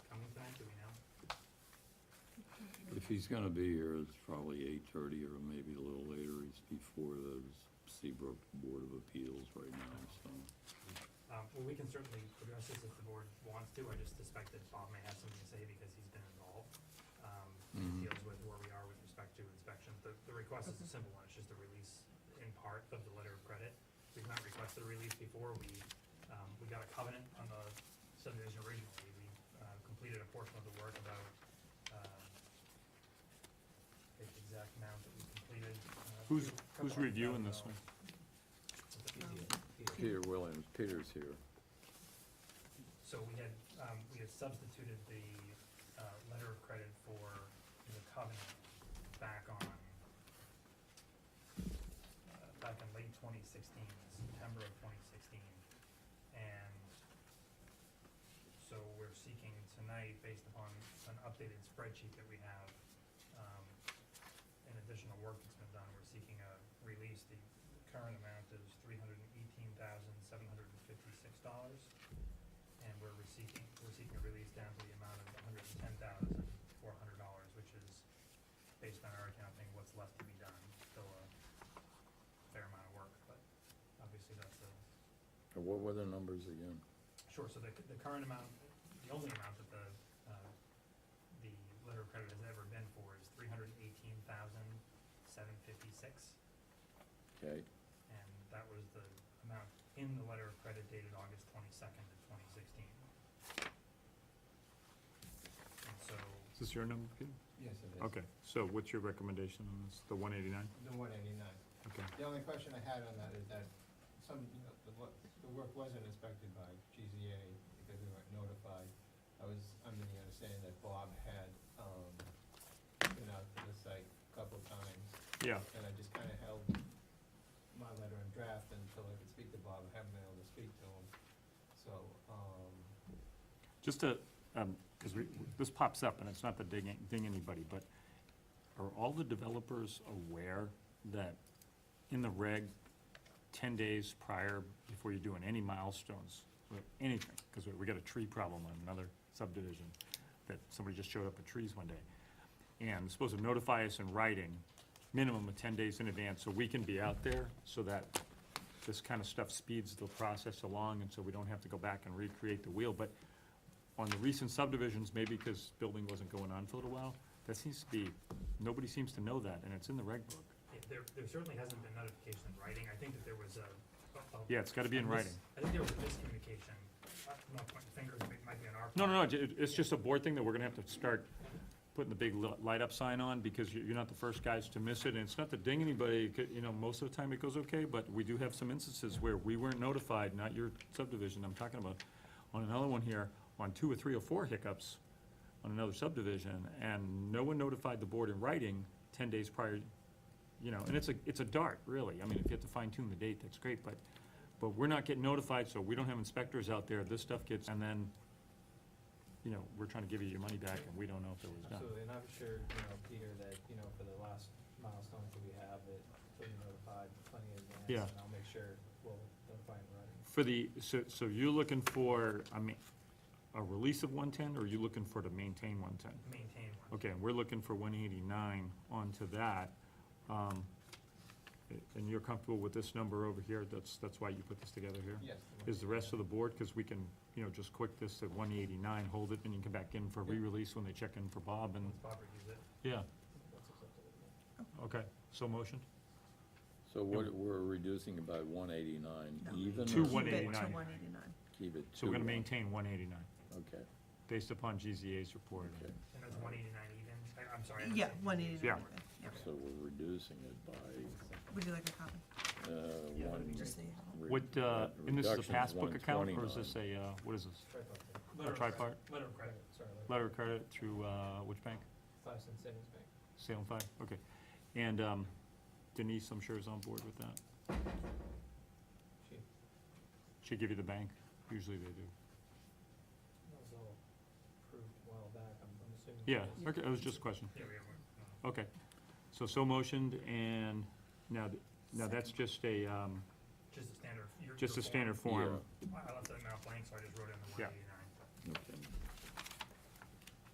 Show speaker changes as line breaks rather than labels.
he's gonna be here, it's probably eight-thirty or maybe a little later. He's before the Seabrook Board of Appeals right now, so.
Um, well, we can certainly address this if the board wants to, I just suspect that Bob may have something to say because he's been involved. Um,
Mhm.
it
Mm-hmm.
deals with where we are with respect to inspections, the, the request is a simple one, it's just a release in part of the letter of credit. We've not requested a release before, we, um, we got a covenant on the subdivision originally, we, uh, completed a portion of the work about, um, the exact amount that we completed. uh, a
Who's-
couple
who's
hundred
reviewing this
thousand
one?
dollars.
Peter Williams, Peter's here.
So we had, um, we had substituted the, uh, letter of credit for the covenant back on, uh, back in late twenty sixteen, September of twenty sixteen. And so we're seeking tonight, based upon an updated spreadsheet that we have, um, and additional work that's been done, we're seeking a release. The current amount is three hundred and eighteen thousand, seven hundred and fifty-six dollars and we're seeking, we're seeking a release down to the amount of hundred and ten thousand, four hundred dollars, which is, based on our accounting, what's left to be done, still a fair amount of work, but obviously that's a,
And what were the numbers again?
sure, so the, the current amount, the only amount that the, uh, the letter of credit has ever been for is three hundred and eighteen thousand, seven fifty-six,
Okay,
and that was the amount in the letter of credit dated August twenty-second of twenty sixteen. And so,
Is this your number, Peter?
Yes, it is.
Okay, so what's your recommendation on this, the one eighty-nine?
The one eighty-nine.
Okay,
The only question I had on that is that some, you know, the, wo- the work wasn't inspected by GZA because we weren't notified. I was under the understanding that Bob had, um, been out to the site a couple times,
yeah,
and I just kinda held my letter in draft until I could speak to Bob, I haven't been able to speak to him, so, um,
just to, um 'cause cause we, this pops up, and it's not to ding, ding anybody, but are all the developers aware that in the reg, ten days prior, before you're doing any milestones, or anything, cause we, we got a tree problem on another subdivision, that somebody just showed up with trees one day, and supposed to notify us in writing, minimum of ten days in advance, so we can be out there, so that this kind of stuff speeds the process along, and so we don't have to go back and recreate the wheel, but on the recent subdivisions, maybe because building wasn't going on for a little while, that seems to be, nobody seems to know that, and it's in the reg book.
Yeah, There, there certainly hasn't been notification in writing, I think that there was a. a- a-
Yeah, it's gotta be in
a mis-
writing.
I think there was a miscommunication, I'm not pointing fingers, but it might be on our.
No, no, no,
part.
it- it- it's just a board thing that we're gonna have to start putting the big li- light-up sign on, because you- you're not the first guys to miss it, and it's not to ding anybody, it could- you know, most of the time it goes okay, but we do have some instances where we weren't notified, not your subdivision I'm talking about, on another one here, on two or three or four hiccups on another subdivision, and no one notified the board in writing ten days prior, you know, and it's a, it's a dart, really, I mean, if you have to fine-tune the date, that's great, but, but we're not getting notified, so we don't have inspectors out there, this stuff gets, and then you know, we're trying to give you your money back and we don't know if it was done.
absolutely, and I'm sure, you know, Peter, that, you know, for the last milestones that we have, that we'll be notified plenty in
Yeah.
advance, and I'll make sure we'll notify in writing.
For the, so, so you're looking for, I mean, a release of one-ten, or are you looking for to maintain one-ten?
Maintain one.
Okay, and we're looking for one eighty-nine onto that. Um, and you're comfortable with this number over here, that's, that's why you put this together here?
Yes.
Is the rest of the board, because we can, you know, just click this at one eighty-nine, hold it, and you can come back in for
Yeah.
re-release when they check in for Bob and,
Once Bob reviews it,
yeah,
That's acceptable.
okay, so motion?
so what, we're reducing it by one eighty-nine
No.
even?
Two
or
Keep it
189.
To one eighty-nine.
Keep it
So we're gonna
two?
maintain one eighty-nine,
Okay,
based upon GZA's report.
okay,
and that's one eighty-nine even, I, I'm sorry. I
Yeah,
understand.
one eighty-nine,
Yeah.
yeah.
so we're reducing it by,
Would you like a copy?
uh,
Yeah, that'd
one.
be
Just so you have it.
re-
What, uh,
re-
and this is a
reduction's
passbook account, or is
129.
this a, uh, what is this?
Sorry about that.
Letter of
tripart?
credit- Letter of credit.
Sorry, like
Letter of credit through, uh, which bank?
five cent savings bank.
Salem Five, okay. And um, Denise, I'm sure is on board with that.
She
She give you the bank, usually they do.
that was all approved a while back, I'm I'm assuming.
Yeah,
it was-
okay, it was just a question.
Yeah, we have one. Uh,
Okay, so so motioned, and now, th- now that's just a, um,
Just a standard. your-
just
your
a standard
form.
form.
I I left that amount blank, so I just wrote in the one
Yeah.
eighty-nine.